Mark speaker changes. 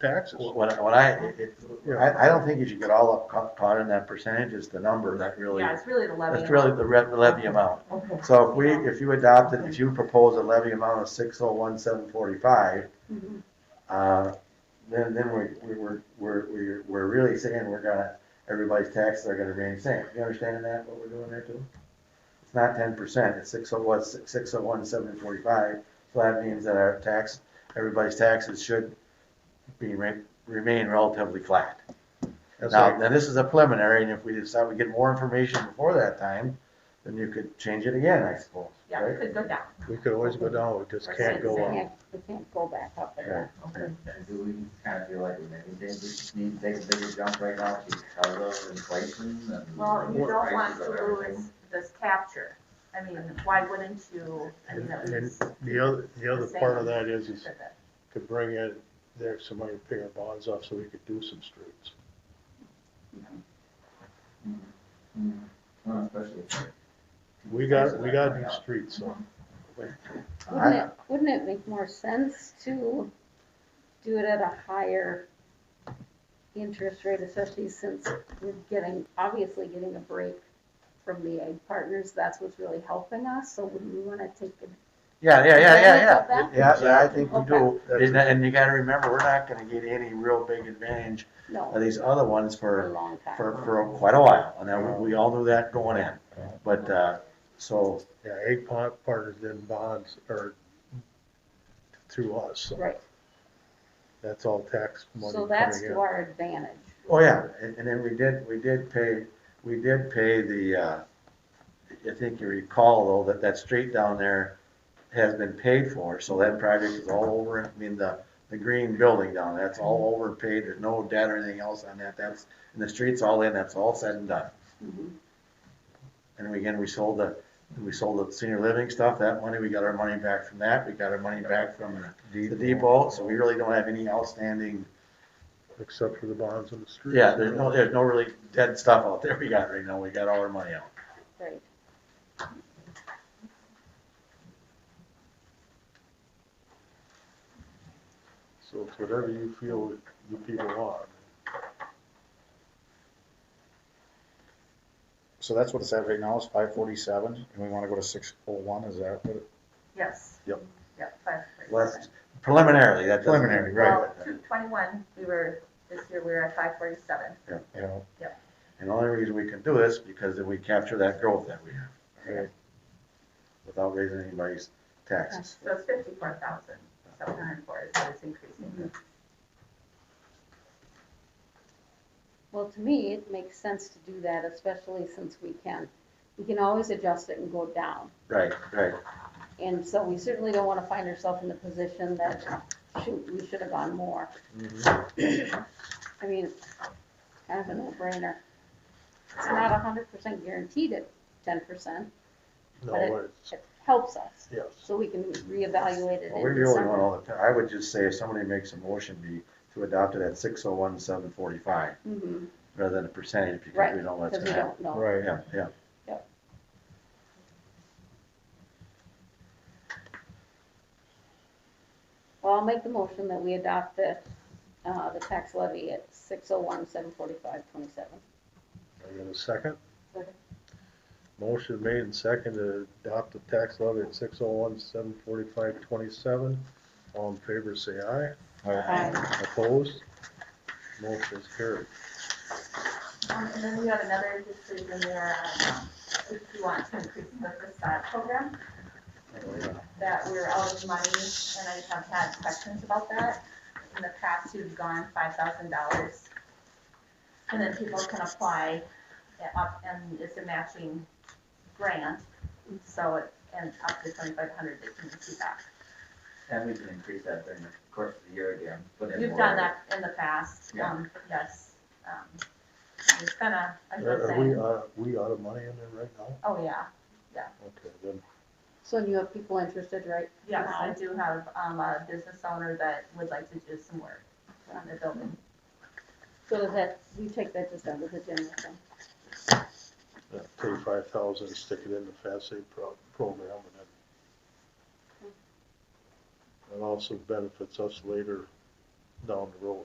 Speaker 1: taxes.
Speaker 2: What, what I, it, I, I don't think you should get all up ca- caught in that percentage, it's the number that really,
Speaker 3: Yeah, it's really the levy.
Speaker 2: that's really the re- the levy amount.
Speaker 4: Okay.
Speaker 2: So if we, if you adopted, if you propose a levy amount of six oh one seven forty-five,
Speaker 4: Mm-hmm.
Speaker 3: Mhm.
Speaker 2: uh, then, then we, we, we're, we're, we're, we're really saying we're gonna, everybody's taxes are gonna remain the same. You understand that, what we're doing there too? It's not ten percent, it's six oh one, six oh one seven forty-five, so that means that our tax, everybody's taxes should be, re- remain relatively flat.
Speaker 1: That's
Speaker 2: Now,
Speaker 1: like-
Speaker 2: now this is a preliminary, and if we decide we get more information before that time, then you could change it again, I suppose,
Speaker 3: Yeah, it
Speaker 2: right?
Speaker 3: could go down.
Speaker 1: We could always go down, we just can't go up.
Speaker 5: Can't, we can't go back up there.
Speaker 6: And do we kind of feel like with anything, we just need to take a bigger jump right now because of inflation and.
Speaker 3: Well, you don't
Speaker 6: prices
Speaker 3: want
Speaker 6: of
Speaker 3: to
Speaker 6: everything?
Speaker 3: lose this capture. I mean, why wouldn't you, I mean,
Speaker 1: And
Speaker 3: that
Speaker 1: and
Speaker 3: was.
Speaker 1: the other, the other part of that is, is to bring in, there's some money to pay our bonds off so we could do some streets.
Speaker 6: Mm. Well, especially if-
Speaker 1: We got, we got these streets, so.
Speaker 5: Wouldn't it, wouldn't it make more sense to do it at a higher interest rate, especially since we're getting, obviously getting a break from the egg partners, that's what's really helping us, so wouldn't we wanna take it?
Speaker 2: Yeah, yeah, yeah, yeah, yeah,
Speaker 5: Advantage
Speaker 2: yeah, yeah, I think we
Speaker 5: Okay.
Speaker 2: do, and, and you gotta remember, we're not gonna get any real big advantage of
Speaker 5: No,
Speaker 2: these other ones
Speaker 5: for a
Speaker 2: for,
Speaker 5: long time.
Speaker 2: for, for quite a while, and then we, we all knew that going in, but, uh, so,
Speaker 5: Mm-hmm.
Speaker 1: Yeah, egg pot partners did bonds or through us, so
Speaker 5: Right,
Speaker 1: that's all tax money
Speaker 5: so that's
Speaker 1: coming
Speaker 5: to
Speaker 1: in.
Speaker 5: our advantage.
Speaker 2: oh yeah, and, and then we did, we did pay, we did pay the, uh, I think you recall though, that that street down there has been paid for, so that project is all over, I mean, the, the green building down, there, that's all overpaid, there's no debt or anything else on that, that's, and the street's all in, that's all said and done.
Speaker 5: Mm-hmm.
Speaker 2: And we- again, we sold the, we sold the senior living stuff, that money, we got our money back from that, we got our money back from the depot, so we really don't have any outstanding,
Speaker 1: Except for the bonds on the street.
Speaker 2: yeah, there's no, there's no really dead stuff out there we got right now, we got all our money out.
Speaker 5: Right.
Speaker 1: So it's whatever you feel that you people want.
Speaker 7: So that's what it's at right now, is five forty-seven, and we wanna go to six oh one, is that what? it-
Speaker 3: Yes.
Speaker 7: Yep.
Speaker 3: Yep, five.
Speaker 2: Less preliminarily, that doesn't.
Speaker 7: Preliminary,
Speaker 3: Well,
Speaker 7: right,
Speaker 3: two twenty-one, we were, this year we were at five forty-seven.
Speaker 7: you know,
Speaker 2: And the only reason we can do this, because if we capture that growth that we have.
Speaker 7: Right.
Speaker 2: Without raising anybody's taxes.
Speaker 3: So it's fifty-four thousand, seven hundred and four is what it's increasing.
Speaker 5: Well, to me, it makes sense to do that, especially since we can, we can always adjust it and go down.
Speaker 2: Right, right.
Speaker 5: And so we certainly don't want to find ourselves in the position that, shoot, we should have gone more.
Speaker 7: Mm-hmm.
Speaker 5: I mean, it's kind of a no-brainer. It's not a hundred percent guaranteed at ten percent,
Speaker 1: No,
Speaker 5: But
Speaker 1: it's,
Speaker 5: it helps us,
Speaker 1: yes.
Speaker 5: so we can reevaluate it
Speaker 2: Well, we
Speaker 5: in
Speaker 2: really want
Speaker 5: December.
Speaker 2: all the, I would just say if somebody makes a motion be to adopt it at six oh one, seven forty-five,
Speaker 5: Mhm,
Speaker 2: rather than a percentage, because
Speaker 5: Right,
Speaker 2: we know what's
Speaker 5: Because we
Speaker 2: gonna happen.
Speaker 5: don't know.
Speaker 7: right.
Speaker 2: Yeah, yeah.
Speaker 5: Well, I'll make the motion that we adopt the, uh, the tax levy at six oh one, seven forty-five, twenty-seven.
Speaker 1: I got a second?
Speaker 3: Second.
Speaker 1: Motion made and second to adopt the tax levy at six oh one, seven forty-five, twenty-seven. All in favor, say aye.
Speaker 5: Uh,
Speaker 1: Opposed? Motion is carried.
Speaker 3: Um, and then we have another decision there, um, if you want to increase the facade program, that we're out of money, and I have had questions about that. In the past, you've gone five thousand dollars, and then people can apply uh, up, and it's a matching grant, so, it- and up to twenty-five hundred, they can receive that.
Speaker 6: And we can increase that during the course of the year again. put in
Speaker 3: You've
Speaker 6: more.
Speaker 3: done that in the past,
Speaker 6: Yeah.
Speaker 3: um, yes, um, it's been a, a
Speaker 1: Are
Speaker 3: good
Speaker 1: are we,
Speaker 3: thing.
Speaker 1: uh, we out of money in there right now?
Speaker 3: Oh, yeah.
Speaker 1: Okay, then,
Speaker 5: So you have people interested, right?
Speaker 3: Yes, I
Speaker 5: Wow.
Speaker 3: do have, um, a business owner that would like to do some work on the building.
Speaker 5: So does that, you take that just under the general fund?
Speaker 1: uh, thirty-five thousand, stick it in the FAST Aid pro- program and then. It also benefits us later down the road.